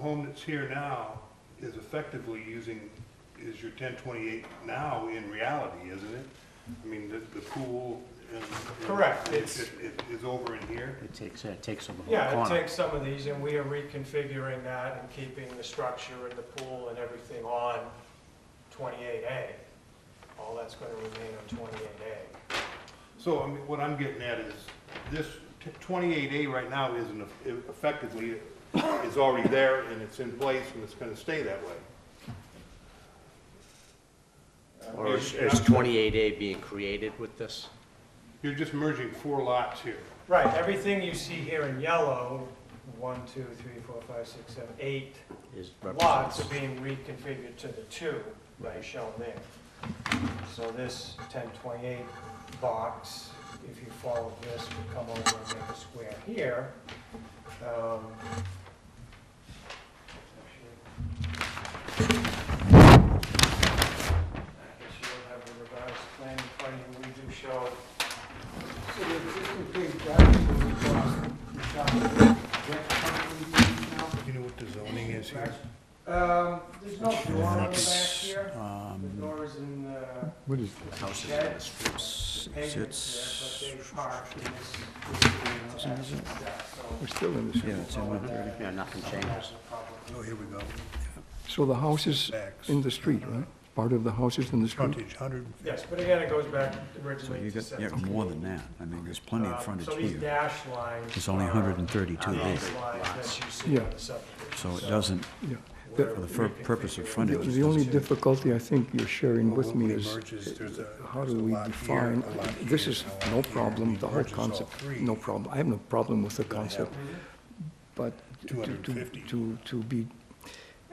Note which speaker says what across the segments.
Speaker 1: home that's here now is effectively using, is your ten twenty-eight now in reality, isn't it? I mean, the, the pool and. and
Speaker 2: Correct,
Speaker 1: It's,
Speaker 2: it's-
Speaker 1: it is over in here.
Speaker 3: It takes, it takes over the whole
Speaker 2: Yeah, it
Speaker 3: corner.
Speaker 2: takes some of these, and we are reconfiguring that and keeping the structure and the pool and everything on 28A. All that's going to remain on 28A.
Speaker 1: So, I mean, what I'm getting at is, this twenty-eight A right now isn't, eff- effectively, is already there and it's in place and it's gonna stay that way.
Speaker 4: Or is is 28A being created with this?
Speaker 1: You're just merging four lots here.
Speaker 2: Right, everything you see here in yellow, one, two, three, four, five, six, seven, eight
Speaker 4: Is
Speaker 2: lots are
Speaker 4: represents-
Speaker 2: being reconfigured to the two that are shown there. So this 1028 box, if you follow this, would come over and make a square here. Um, I guess you don't have the revised plan in front of you, we do show,
Speaker 5: So the existing paved driveway will cross uh, the top of the deck currently
Speaker 1: You know what the zoning is
Speaker 5: used now. Um, there's no door on the back
Speaker 3: It's,
Speaker 5: here. The
Speaker 3: um,
Speaker 5: door is in the
Speaker 3: What is?
Speaker 4: The house is in this
Speaker 3: It's,
Speaker 5: pavement
Speaker 3: it's-
Speaker 5: there, but they park in this- this. area of access,
Speaker 6: We're still in this.
Speaker 3: yeah, it's in the-
Speaker 4: Yeah, nothing
Speaker 5: So that's
Speaker 4: changes.
Speaker 5: a problem.
Speaker 1: Oh, here we go.
Speaker 6: So the house is
Speaker 1: Backs.
Speaker 6: in the street, right? Part of the house is in the street?
Speaker 1: Frontage, hundred and fifty.
Speaker 2: yes, but again, it goes back
Speaker 3: So
Speaker 2: originally
Speaker 3: you
Speaker 2: to
Speaker 3: got, you got
Speaker 2: 17.
Speaker 3: more than that. I mean, there's plenty
Speaker 2: Um,
Speaker 3: of frontage
Speaker 2: So these
Speaker 3: here.
Speaker 2: dash lines.
Speaker 3: It's only
Speaker 2: are
Speaker 3: 132
Speaker 2: the
Speaker 3: big.
Speaker 2: dash lines that you see
Speaker 6: Yeah.
Speaker 2: on the subdivision.
Speaker 3: So it doesn't,
Speaker 6: Yeah.
Speaker 2: we're
Speaker 3: for the fur- purpose
Speaker 2: reconfiguring
Speaker 3: of
Speaker 6: The-
Speaker 3: frontage.
Speaker 6: The only difficulty I think you're sharing with me is, uh, how do we define, this is no problem, the whole concept, no problem. I have no problem with the concept, but to, to,
Speaker 1: 250.
Speaker 6: to- to be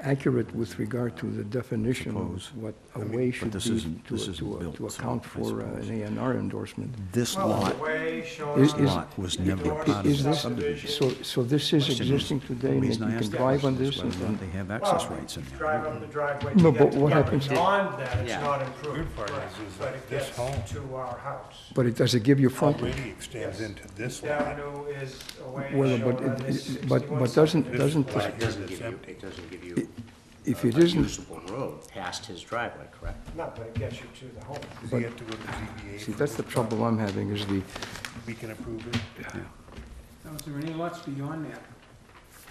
Speaker 6: accurate with regard to the definition of
Speaker 3: Propose.
Speaker 6: what a way should
Speaker 3: this
Speaker 6: be
Speaker 3: isn't-
Speaker 6: to,
Speaker 3: this
Speaker 6: to-
Speaker 3: isn't built,
Speaker 6: to
Speaker 3: so
Speaker 6: account
Speaker 3: I
Speaker 6: for uh,
Speaker 3: suppose.
Speaker 6: an A and R endorsement.
Speaker 3: this
Speaker 2: Well,
Speaker 3: lot,
Speaker 2: the way shown
Speaker 6: Is-
Speaker 2: on
Speaker 6: is-
Speaker 3: lot was
Speaker 2: the
Speaker 3: never
Speaker 2: door
Speaker 3: part of
Speaker 6: Is
Speaker 3: the
Speaker 6: this-
Speaker 3: subdivision.
Speaker 6: So, so this is
Speaker 3: Question is-
Speaker 6: existing today,
Speaker 3: The
Speaker 6: and you
Speaker 3: reason I
Speaker 6: can
Speaker 3: asked that
Speaker 6: drive on
Speaker 3: question is
Speaker 6: this? and-
Speaker 3: whether or not
Speaker 6: and-
Speaker 3: they have
Speaker 2: Well,
Speaker 3: access rights in there.
Speaker 2: Drive up the driveway. to
Speaker 6: No,
Speaker 2: get
Speaker 6: but
Speaker 2: to
Speaker 6: what
Speaker 2: it.
Speaker 6: happens-
Speaker 2: Beyond that, it's
Speaker 4: Yeah.
Speaker 2: not improved.
Speaker 1: Weird part is,
Speaker 2: right,
Speaker 1: is
Speaker 2: but
Speaker 1: that
Speaker 2: it
Speaker 1: this
Speaker 2: gets
Speaker 1: home-
Speaker 2: To our house.
Speaker 6: But it, does it give you frontage?
Speaker 1: Already extends
Speaker 2: Yes.
Speaker 1: into this
Speaker 2: The
Speaker 1: lot.
Speaker 2: avenue is a way
Speaker 6: Well,
Speaker 2: shown
Speaker 6: but
Speaker 2: on
Speaker 6: it-
Speaker 2: this
Speaker 6: it- but-
Speaker 2: 61
Speaker 6: but doesn't-
Speaker 2: subdivision.
Speaker 6: doesn't
Speaker 1: This lot
Speaker 4: It
Speaker 1: here
Speaker 4: doesn't
Speaker 1: that's
Speaker 4: give you,
Speaker 1: empty.
Speaker 4: it doesn't give you
Speaker 6: If
Speaker 4: a
Speaker 6: it isn't,
Speaker 4: usable road past his driveway, correct?
Speaker 2: No, but it gets you to the home.
Speaker 1: Does he have to go to ZBA?
Speaker 6: see,
Speaker 1: for
Speaker 6: that's the
Speaker 1: this?
Speaker 6: trouble I'm having, is the,
Speaker 1: We can approve it.
Speaker 5: Now, is there any lots beyond that?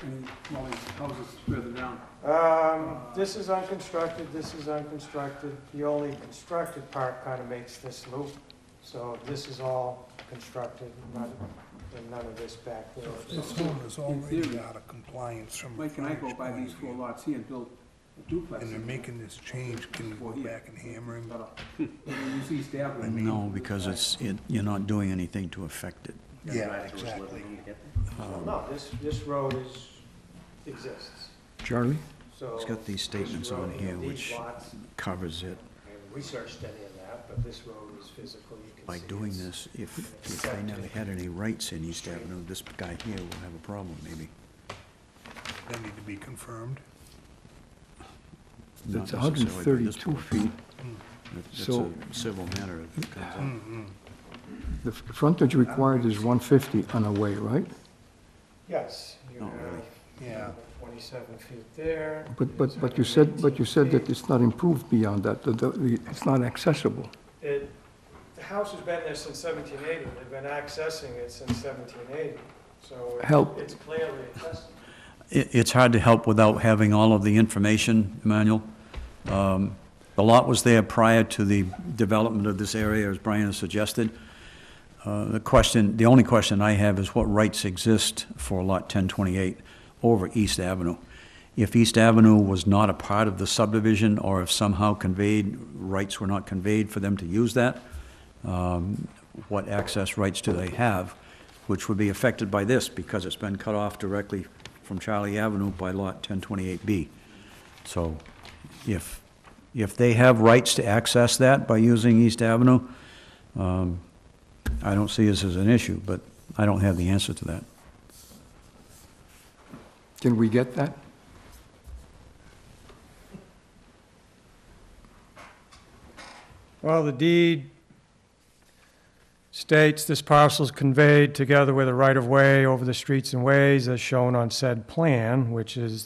Speaker 5: Any dwelling houses further down?
Speaker 2: Um, this is unconstructed, this is unconstructed. The only constructed part kind of makes this loop. So this is all constructed, none, and none of this back there.
Speaker 5: This home
Speaker 1: is
Speaker 5: already theory,
Speaker 1: out of compliance from.
Speaker 5: Mike and I go by these four lots here and build a duplex.
Speaker 1: this change,
Speaker 5: can we go back
Speaker 1: and
Speaker 5: hammer him. You see staff with me.
Speaker 3: No, because it's, it- you're not doing anything to affect it.
Speaker 1: Yeah,
Speaker 4: Drive-through is living
Speaker 1: exactly.
Speaker 4: when you get there.
Speaker 2: No, this, this road is, exists,
Speaker 6: Charlie?
Speaker 2: so.
Speaker 3: It's got these
Speaker 2: this
Speaker 3: statements
Speaker 2: road
Speaker 3: on
Speaker 2: and
Speaker 3: here
Speaker 2: these
Speaker 3: which
Speaker 2: lots,
Speaker 3: covers it.
Speaker 2: I haven't researched any of that, but this road is physical, you can
Speaker 3: By
Speaker 2: see
Speaker 3: doing
Speaker 2: it's-
Speaker 3: this, if, if they never had any rights in East Avenue, this guy here will have a problem, maybe.
Speaker 1: That need to be confirmed.
Speaker 3: Not
Speaker 6: It's
Speaker 3: necessarily by this
Speaker 6: 132
Speaker 3: board.
Speaker 6: feet.
Speaker 3: That's
Speaker 6: So-
Speaker 3: a civil matter if it comes up.
Speaker 6: The f- frontage required is 150 on a way, right?
Speaker 2: Yes. you
Speaker 3: Not
Speaker 2: have
Speaker 3: really.
Speaker 1: Yeah.
Speaker 2: Twenty-seven feet there.
Speaker 6: But, but, but you
Speaker 2: it's
Speaker 6: said, but you said
Speaker 2: 118
Speaker 6: that it's not improved beyond that, that the- it's not accessible.
Speaker 2: It, the house has been there since seventeen eighty, they've been accessing it since seventeen eighty, so. it-
Speaker 6: Help.
Speaker 2: It's clearly accessible.
Speaker 3: It, it's hard to help without having all of the information, Emmanuel. Um, The lot was there prior to the development of this area, as Brian has suggested. Uh, The question, the only question I have is what rights exist for Lot 1028 over East Avenue? If East Avenue was not a part of the subdivision, or if somehow conveyed, rights were not conveyed for them to use that, um, what access rights do they have, which would be affected by this, because it's been cut off directly from Charlie Avenue by Lot 1028B. So if, if they have rights to access that by using East Avenue, um, I don't see this as an issue, but I don't have the answer to that.
Speaker 6: Can we get that?
Speaker 7: Well, the deed states this parcel is conveyed together with a right-of-way over the streets and ways as shown on said plan, which is